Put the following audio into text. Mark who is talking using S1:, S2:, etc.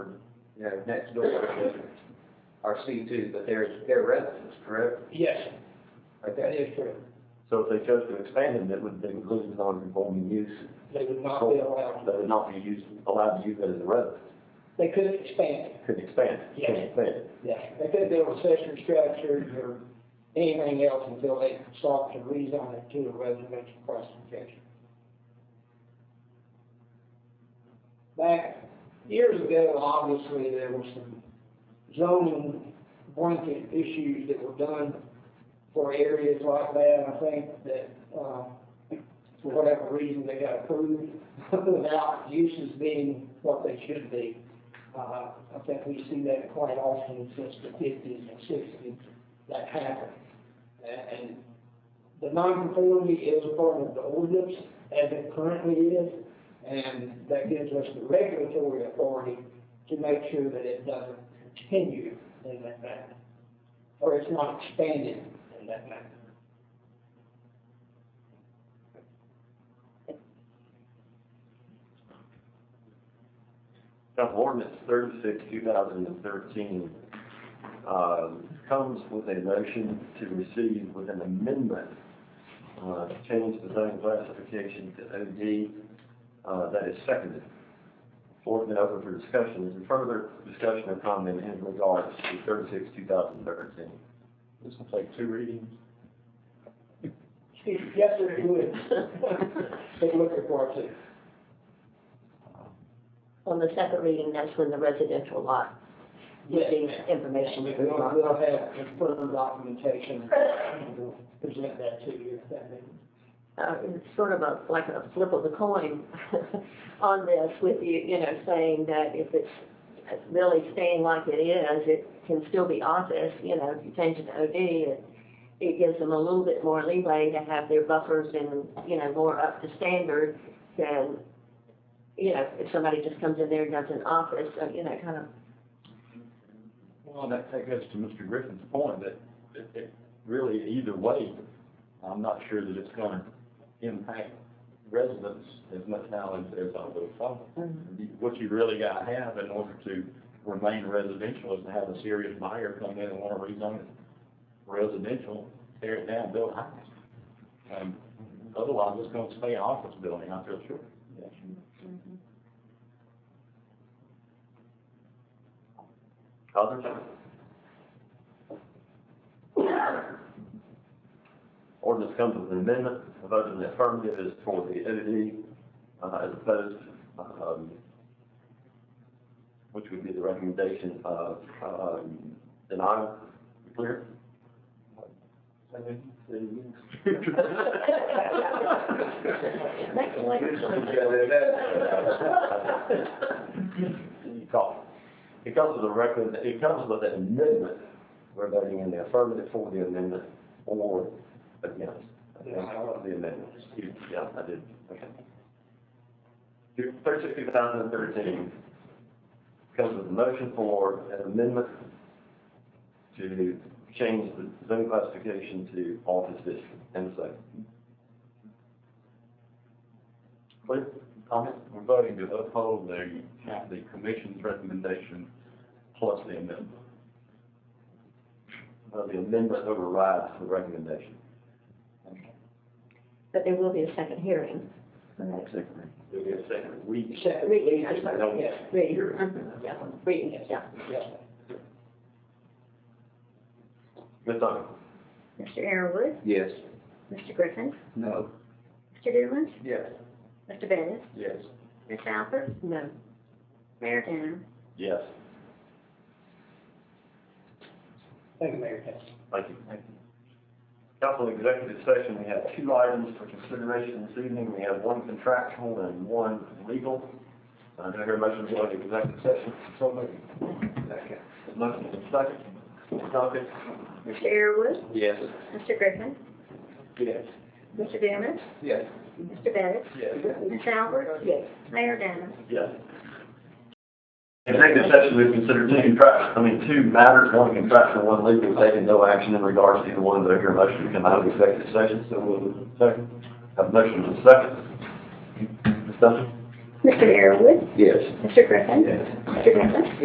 S1: you know, next door are C two, but they're, they're residents, correct?
S2: Yes, that
S1: Okay,
S2: is true.
S3: So if they chose to expand them, it would include non-conforming use,
S2: They would not be allowed,
S3: that would not be used, allowed to use it as a residence,
S2: they couldn't expand it,
S3: could expand, it, could
S2: Yeah.
S3: expand. it.
S2: yeah. They couldn't build accessory structures or anything else until they sought to rezone it to a residential classification. Back years ago, obviously, there were some zoning blanket issues that were done for areas like that. I think that, uh, for whatever reason, they got approved without uses being what they should be. Uh, I think we see that quite often since the fifties and sixties, that happened. A- And the nonconformity is part of the ordinance as it currently is, and that gives us the regulatory authority to make sure that it doesn't continue in that manner, or it's not expanded in that manner.
S3: Now, ordinance thirty-six, two thousand and thirteen, um, comes with a motion to receive with an amendment, uh, to change the zone classification to OD, uh, that is seconded. Floor has been open for discussion. Is there further discussion or comment in regards to thirty-six, two thousand and thirteen?
S4: This will take two readings.
S2: Yes, sir, it would. They look for it too.
S5: On the second reading, that's when the residential lot,
S2: Yes,
S5: the
S2: ma'am.
S5: information is
S2: We'll,
S5: not.
S2: we'll have confirmed documentation, and we'll present that to you, if that means.
S5: uh, it's sort of a, like a flip of the coin on this with you, you know, saying that if it's really staying like it is, it can still be office, you know, if you change it to OD, it, it gives them a little bit more leeway to have their buffers and, you know, more up to standard than, you know, if somebody just comes in there and does an office, uh, you know, kind of,
S4: Well, and that takes us to Mr. Griffin's point that it, it really, either way, I'm not sure that it's gonna impact residents as much now as there's on the phone.
S5: um,
S4: What you really gotta have in order to remain residential is to have a serious buyer come in and wanna rezone it residential, tear it down, build a house. Um, otherwise, it's gonna stay an office building, I feel sure.
S3: Others? Ordinance comes with an amendment, a vote in the affirmative is for the OD, uh, as opposed, um, which would be the recommendation of, um, denial, clear?
S5: Next one.
S3: You call. It comes with a recommend, it comes with an amendment, we're voting in the affirmative for the amendment or against. I think for The amendment, excuse, yeah, I did, okay. Thirty-six, two thousand and thirteen, comes with a motion for an amendment to change the zone classification to office district, and so. Clear? Comment?
S4: We're voting to uphold the, the commission's recommendation plus the amendment.
S3: Uh, the amendment overrides the recommendation.
S5: but there will be a second hearing.
S3: Do we have a second? We,
S2: Except,
S5: Reading, I'm sorry,
S2: yes,
S5: reading, mhm, yeah, reading, yeah.
S2: yes.
S3: Ms. Duncan?
S6: Mr. Arrowood,
S1: yes.
S6: Mr. Griffin,
S1: No.
S6: Mr. Dooland,
S1: Yes.
S6: Mr. Bennett,
S1: Yes.
S6: Ms. Albert,
S5: No,
S6: Mayor Denham.
S3: Yes.
S2: Thank you, Mayor Cass.
S3: Thank you. Council executive session, we have two items for consideration this evening. We have one contractual and one legal. Uh, do I hear a motion to go into executive session? So moved.
S1: Second.
S3: Motion is second. Ms. Duncan?
S6: Mr. Arrowood,
S1: Yes.
S6: Mr. Griffin,
S1: Yes.
S6: Mr. Dooland,
S1: Yes.
S6: Mr. Bennett,
S1: Yes.
S6: Ms. Albert,
S5: yes.
S6: Mayor Denham.
S3: Yes. Executive session, we consider two contract, I mean, two matters, one contractual, one legal, taking no action in regards to either one, but I hear a motion to come out of executive session, so we'll, second. Have a motion to second. Ms. Duncan?
S6: Mr. Arrowood,
S1: Yes.
S6: Mr. Griffin, Mr. Griffin.